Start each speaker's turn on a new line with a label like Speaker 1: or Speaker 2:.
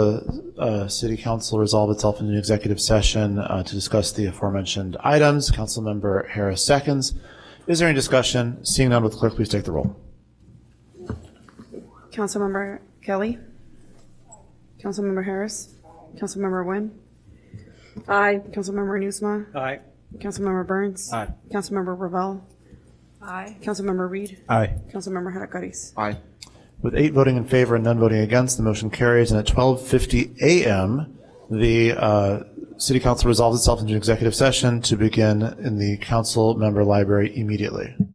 Speaker 1: The uh, city council resolve itself into an executive session uh, to discuss the aforementioned items. Councilmember Harris seconds. Is there any discussion? Seeing none, with the clerk please take the roll?
Speaker 2: Councilmember Kelly? Councilmember Harris? Councilmember Nguyen? Aye. Councilmember Nusma?
Speaker 3: Aye.
Speaker 2: Councilmember Burns?
Speaker 3: Aye.
Speaker 2: Councilmember Ravel? Aye. Councilmember Reed?
Speaker 3: Aye.
Speaker 2: Councilmember Hadakaris?
Speaker 3: Aye.
Speaker 1: With eight voting in favor and none voting against, the motion carries, and at 12:50 a.m., the uh, city council resolves itself into an executive session to begin in the council member library immediately.